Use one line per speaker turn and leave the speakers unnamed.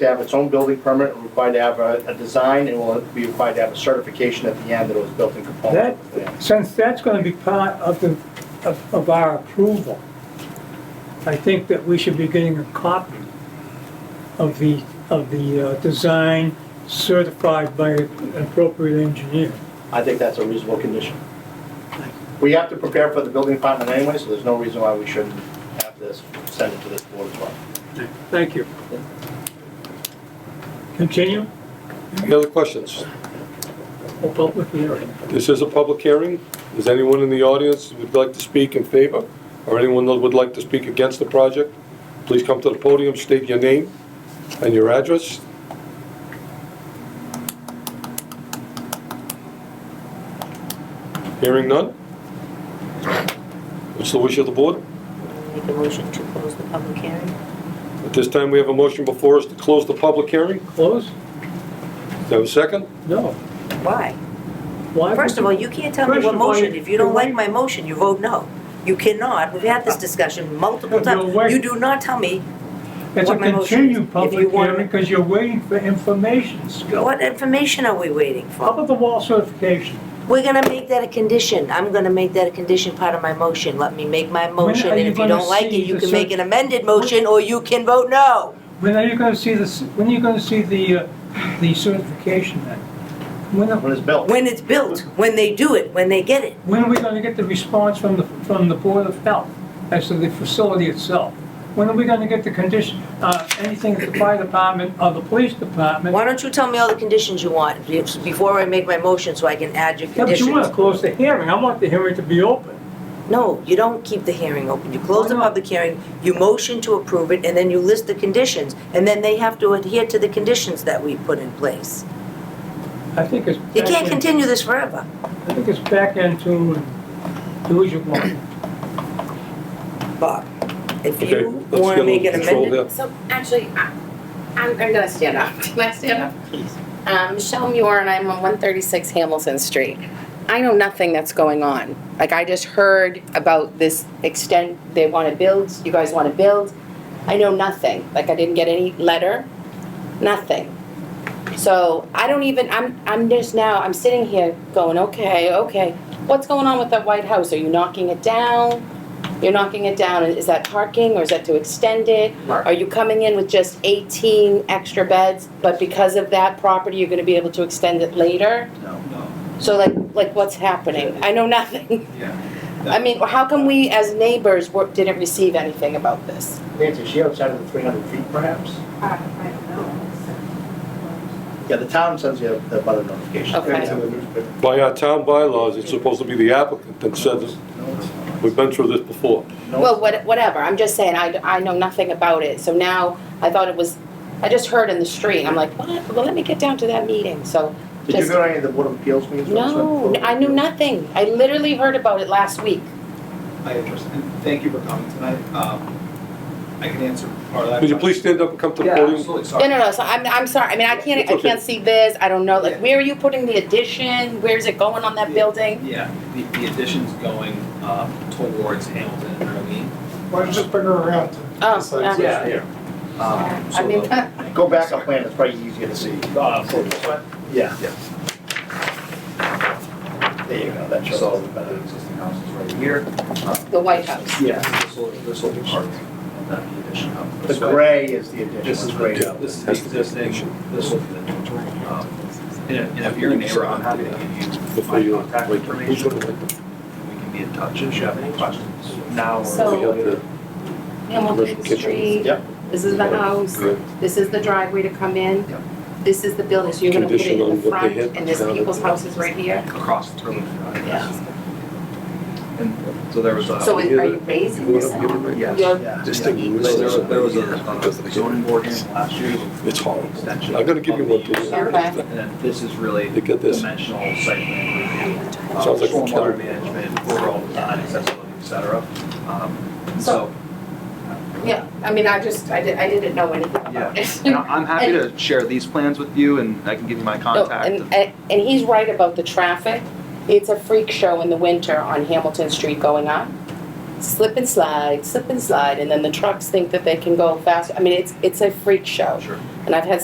to have its own building permit, and required to have a, a design, and will be required to have a certification at the end that it was built in compliance. with the plan.
Since that's gonna be part of the, of, of our approval, I think that we should be getting a copy of the, of the, uh, design certified by an appropriate engineer.
I think that's a reasonable condition. We have to prepare for the building department anyway, so there's no reason why we shouldn't have this, send it to this board as well.
Thank you. Continue,
Any other questions?
a public hearing.
This is a public hearing. Is anyone in the audience who would like to speak in favor, or anyone that would like to speak against the project? Please come to the podium, state your name and your address. Hearing none? What's the wish of the board?
Make a motion to close the public hearing.
At this time, we have a motion before us to close the public hearing.
Close?
Do I have a second?
No.
Why?
Why?
First of all, you can't tell me
First
what
of all,
motion, if you don't
you're
like my motion, you vote no. You cannot, we've had this discussion multiple
You're
times.
Uh, wait-
You do not tell me
It's a
what my motion
continued
is. If you
public
want-
hearing, because you're waiting for information still.
what information are we waiting
How
for?
about the wall certification?
We're gonna make that a condition, I'm gonna make that a condition part of my motion. Let me make my motion,
are
and
you
if you
gonna
don't like
see
it, you
the
can make
cer-
an amended motion, or you can vote no.
When are you gonna see this, when are you gonna see the, uh, the certification then? When, are-
When it's built.
When it's built, when they do it, when they get it.
when are we gonna get the response from the, from the Board of Health as to the facility itself? When are we gonna get the condition, uh, anything at the fire department or the police department?
Why don't you tell me all the conditions you want be- before I make my motion, so I can add your
Yeah, but
conditions?
you wanna close the hearing, I want the hearing to be open.
No, you don't keep the hearing open. You close the
Why not?
public hearing, you motion to approve it, and then you list the conditions. And then they have to adhere to the conditions that we put in place.
I think it's.
You
back
can't
in-
continue this forever.
I think it's back into, uh, do as you want.
Bob, if
Okay,
you
let's
want
get
to
a
make an
little control
amendment,
So actually, I- I'm, I'm gonna stand up. Can I stand up? Please. Um, Michelle Muir and I'm on one thirty-six Hamilton Street. I know nothing that's going on. Like, I just heard about this extend, they wanna build, you guys wanna build. I know nothing. Like, I didn't get any letter, nothing. So I don't even, I'm, I'm just now, I'm sitting here going, okay, okay. What's going on with the White House? Are you knocking it down? You're knocking it down. Is that parking or is that to extend it? Are you coming in with just 18 extra beds, but because of that property, you're gonna be able to extend it later?
No, no,
So like, like what's happening? I know nothing.
yeah.
I mean, how come we as neighbors were- didn't receive anything about this?
Nancy, is she outside of the three hundred feet perhaps?
I don't know.
Yeah, the town sends you the butter notification.
Okay.
By our town bylaws, it's supposed to be the applicant that says, it.
No, it's not.
we've been through this before.
No,
Well,
it's-
what- whatever, I'm just saying, I, I know nothing about it, so now, I thought it was, I just heard in the street, I'm like, what? Well, let me get down to that meeting, so.
Did you
just-
go to any of the board of appeals meetings? for this
No,
one?
I knew nothing, I literally heard about it last week.
I address, and thank you for coming tonight. Um, I can answer part of that.
Would you please stand up and come to the
Yeah,
podium?
absolutely,
No,
sorry.
no, no, so I'm, I'm sorry, I mean, I can't,
It's
I
okay.
can't see this, I don't know, like,
Yeah.
where are you putting the addition, where's it going on that
Yeah.
building?
Yeah, the, the addition's going, um, towards Hamilton and Irving.
Why don't you just bring her around?
Oh,
So,
yeah.
Yeah, yeah. Um,
I
so
mean, uh,
the-
Go back up plan, it's probably easier to see.
Uh, for this one?
Yeah,
Yeah.
there you go, that shows all
So,
the
uh, the
better.
existing house is right here. Uh,
the White House.
Yeah, this will, this will be part of that addition up.
The
this way.
gray is the addition.
This is
gray.
great, this is the existing, this will be the new. Um, And if- and if you're a neighbor, I'm happy to give you
Before
my
you, uh,
contact
like, who's
information.
gonna like the
We can be in touch if you have any questions. Now.
So-
We have the
Hamilton
Commercial kitchens.
Street.
Yep.
This is the
uh,
house,
Good.
this is the driveway to come in.
Yep.
This is the building, so you're gonna put it
Condition on what
in
they
the front,
hit
and this
down at
people's
the-
house is right here.
Across the room.
Yeah.
And so there was a.
So it-
hear
are you
that?
raising
You
this?
wanna give it
Yes.
You're-
Yeah.
This
So
thing,
there was, there was a
because
a
they-
zoning board hearing last year. with
it's horrible.
extension
I'm gonna give you
of the
one
use.
too.
Okay.
And then this is really
Look at this.
dimensional site plan review. uh,
Sounds like a killer.
Stormwater management, overall design, accessibility, et cetera. Um, and So,
Yeah, I mean, I just, I did, I didn't know anything about it.
and I- I'm happy to share these plans with you and I can give you my
No,
contact.
And, and and he's right about the traffic. It's a freak show in the winter on Hamilton Street going up. slip and slide, slip and slide, and then the trucks think that they can go fast. I mean, it's, it's a freak show.
Sure.
And I've had